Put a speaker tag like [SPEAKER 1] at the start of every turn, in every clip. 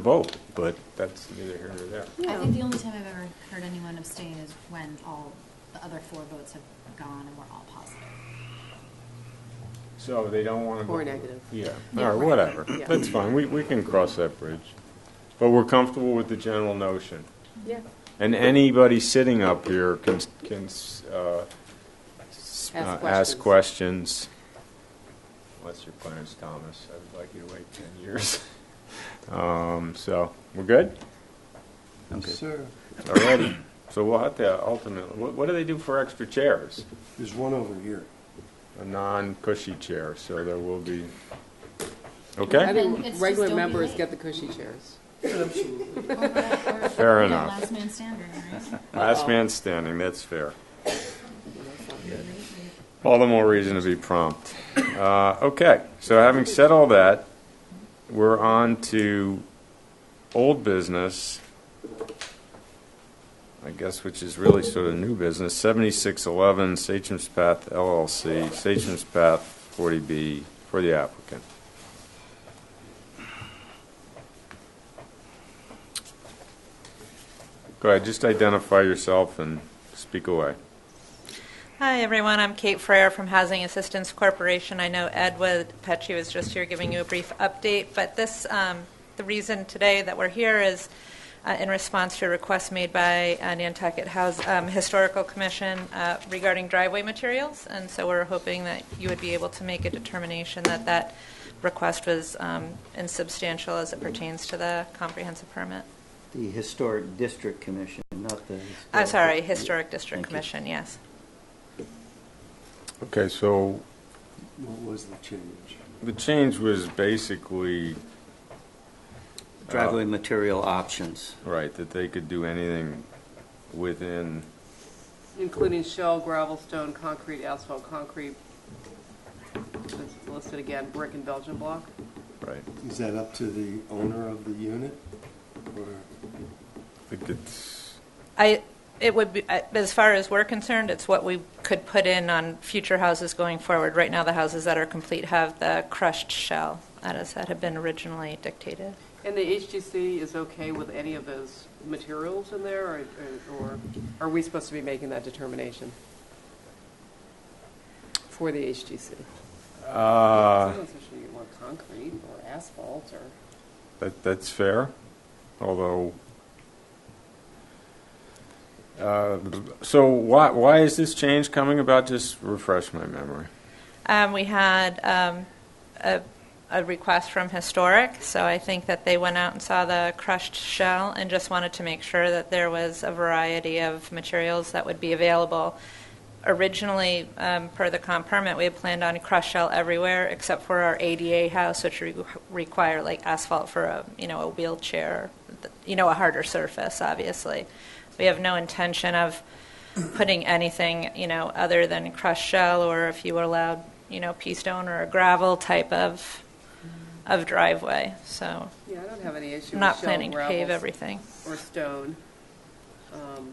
[SPEAKER 1] vote, but that's neither here nor there.
[SPEAKER 2] I
[SPEAKER 3] Yeah.
[SPEAKER 2] think the only time I've ever heard anyone abstain is when all the other four votes have gone and we're all positive.
[SPEAKER 1] So they don't want to.
[SPEAKER 3] Or negative.
[SPEAKER 1] Yeah,
[SPEAKER 2] Yeah,
[SPEAKER 1] or
[SPEAKER 2] right.
[SPEAKER 1] whatever.
[SPEAKER 3] Yeah.
[SPEAKER 1] That's fine. We, we can cross that bridge. But we're comfortable with the general notion.
[SPEAKER 3] Yeah.
[SPEAKER 1] And anybody sitting up here can, can uh, s-
[SPEAKER 3] Ask
[SPEAKER 1] uh, ask questions. What's your plans, Thomas? I'd like you to wait 10 years. Um, So, we're good?
[SPEAKER 4] Yes, sir.
[SPEAKER 1] All righty. So we'll have to ultimately, what, what do they do for extra chairs?
[SPEAKER 4] There's one over here.
[SPEAKER 1] a non-cushy chair, so there will be,
[SPEAKER 3] I
[SPEAKER 1] okay?
[SPEAKER 2] Then it's
[SPEAKER 3] think
[SPEAKER 2] just
[SPEAKER 3] regular
[SPEAKER 2] don't be
[SPEAKER 3] members
[SPEAKER 2] late.
[SPEAKER 3] get the cushy chairs.
[SPEAKER 4] Absolutely.
[SPEAKER 2] Or- or-
[SPEAKER 1] Fair
[SPEAKER 2] yeah,
[SPEAKER 1] enough.
[SPEAKER 2] Last man standing, right?
[SPEAKER 1] Last man standing, that's fair.
[SPEAKER 3] You know, so-
[SPEAKER 1] All the more reason to be prompt. Uh, Okay, so having said all that, we're on to old business, I guess, which is really sort of new business, 7611 Satcham's Path LLC, Satcham's Path 40B for the applicant. Go ahead, just identify yourself and speak away.
[SPEAKER 5] Hi, everyone. I'm Kate Frere from Housing Assistance Corporation. I know Ed Petchy was just here giving you a brief update, but this, um, the reason today that we're here is uh, in response to a request made by uh, Nantucket House um, Historical Commission uh, regarding driveway materials, and so we're hoping that you would be able to make a determination that that request was um, insubstantial as it pertains to the comprehensive permit.
[SPEAKER 6] The Historic District Commission, not the.
[SPEAKER 5] I'm sorry, Historic
[SPEAKER 6] Historical-
[SPEAKER 5] District
[SPEAKER 6] Thank you.
[SPEAKER 5] Commission, yes.
[SPEAKER 1] Okay, so
[SPEAKER 4] What was the change?
[SPEAKER 1] The change was basically,
[SPEAKER 6] Driveway material options.
[SPEAKER 1] right, that they could do anything within,
[SPEAKER 3] Including shell, gravel, stone, concrete, asphalt, concrete. It's Listed again, brick and Belgian block.
[SPEAKER 1] right?
[SPEAKER 4] Is that up to the owner of the unit? Or
[SPEAKER 1] I think it's,
[SPEAKER 5] I, it would be, I- as far as we're concerned, it's what we could put in on future houses going forward. Right now, the houses that are complete have the crushed shell, that is, that had been originally dictated.
[SPEAKER 3] And the HGC is okay with any of those materials in there, or, or are we supposed to be making that determination? For the HGC?
[SPEAKER 1] uh,
[SPEAKER 3] Someone's actually want concrete or asphalt or.
[SPEAKER 1] that, that's fair, although, uh, so why, why is this change coming about? Just refresh my memory.
[SPEAKER 5] Um, we had um, a, a request from Historic, so I think that they went out and saw the crushed shell and just wanted to make sure that there was a variety of materials that would be available. Originally, um, per the comp permit, we had planned on crushed shell everywhere except for our ADA house, which re- require like asphalt for a you know a wheelchair, you know a harder surface. Obviously, we have no intention of putting anything, you know, other than crushed shell or if you were allowed, you know, pea stone or a gravel type of, of driveway. So
[SPEAKER 3] Yeah, I don't have any issue
[SPEAKER 5] I'm
[SPEAKER 3] with
[SPEAKER 5] not
[SPEAKER 3] shell,
[SPEAKER 5] planning to pave
[SPEAKER 3] gravel,
[SPEAKER 5] everything.
[SPEAKER 3] or stone. Um,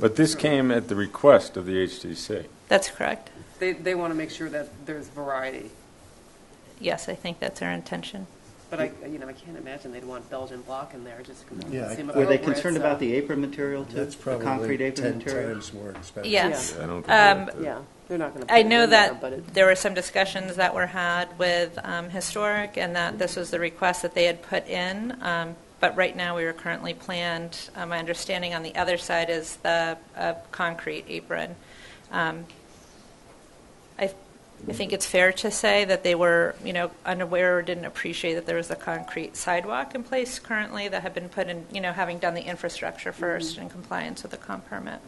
[SPEAKER 1] But this came at the request of the HTC.
[SPEAKER 5] That's correct.
[SPEAKER 3] They, they want to make sure that there's variety,
[SPEAKER 5] Yes, I think that's our intention.
[SPEAKER 3] but I, you know, I can't imagine they'd want Belgian block in there, just completely
[SPEAKER 4] Yeah, I-
[SPEAKER 3] seem
[SPEAKER 6] Were they
[SPEAKER 3] appropriate,
[SPEAKER 6] concerned
[SPEAKER 3] so-
[SPEAKER 6] about the apron material too?
[SPEAKER 4] uh, that's
[SPEAKER 6] The
[SPEAKER 4] probably
[SPEAKER 6] concrete apron
[SPEAKER 4] ten
[SPEAKER 6] material?
[SPEAKER 4] times more expensive.
[SPEAKER 5] Yes.
[SPEAKER 1] I don't think
[SPEAKER 5] Um,
[SPEAKER 1] that-
[SPEAKER 3] Yeah, they're not going to.
[SPEAKER 5] I know
[SPEAKER 3] But
[SPEAKER 5] that
[SPEAKER 3] it,
[SPEAKER 5] there were some discussions that were had with um, Historic and that this was the request that they had put in. Um, But right now, we are currently planned, uh, my understanding on the other side is the uh, concrete apron. Um, I I think it's fair to say that they were, you know, unaware or didn't appreciate that there was a concrete sidewalk in place currently that had been put in, you know, having done the infrastructure first
[SPEAKER 3] Mm-hmm.
[SPEAKER 5] in compliance with the comp permit.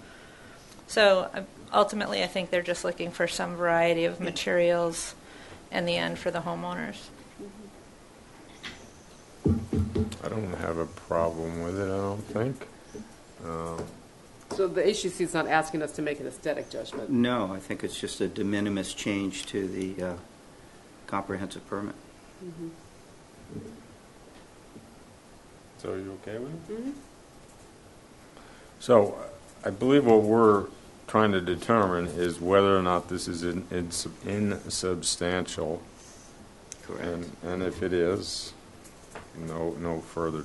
[SPEAKER 5] So uh, ultimately, I think they're just looking for some variety of materials in the end for the homeowners.
[SPEAKER 1] I don't have a problem with it, I don't think.
[SPEAKER 3] so the HGC is not asking us to make an aesthetic judgment.
[SPEAKER 6] No, I think it's just a de minimis change to the uh, comprehensive permit.
[SPEAKER 1] So are you okay with it? So I believe what we're trying to determine is whether or not this is in- ins- insubstantial. And, and if it is, no, no further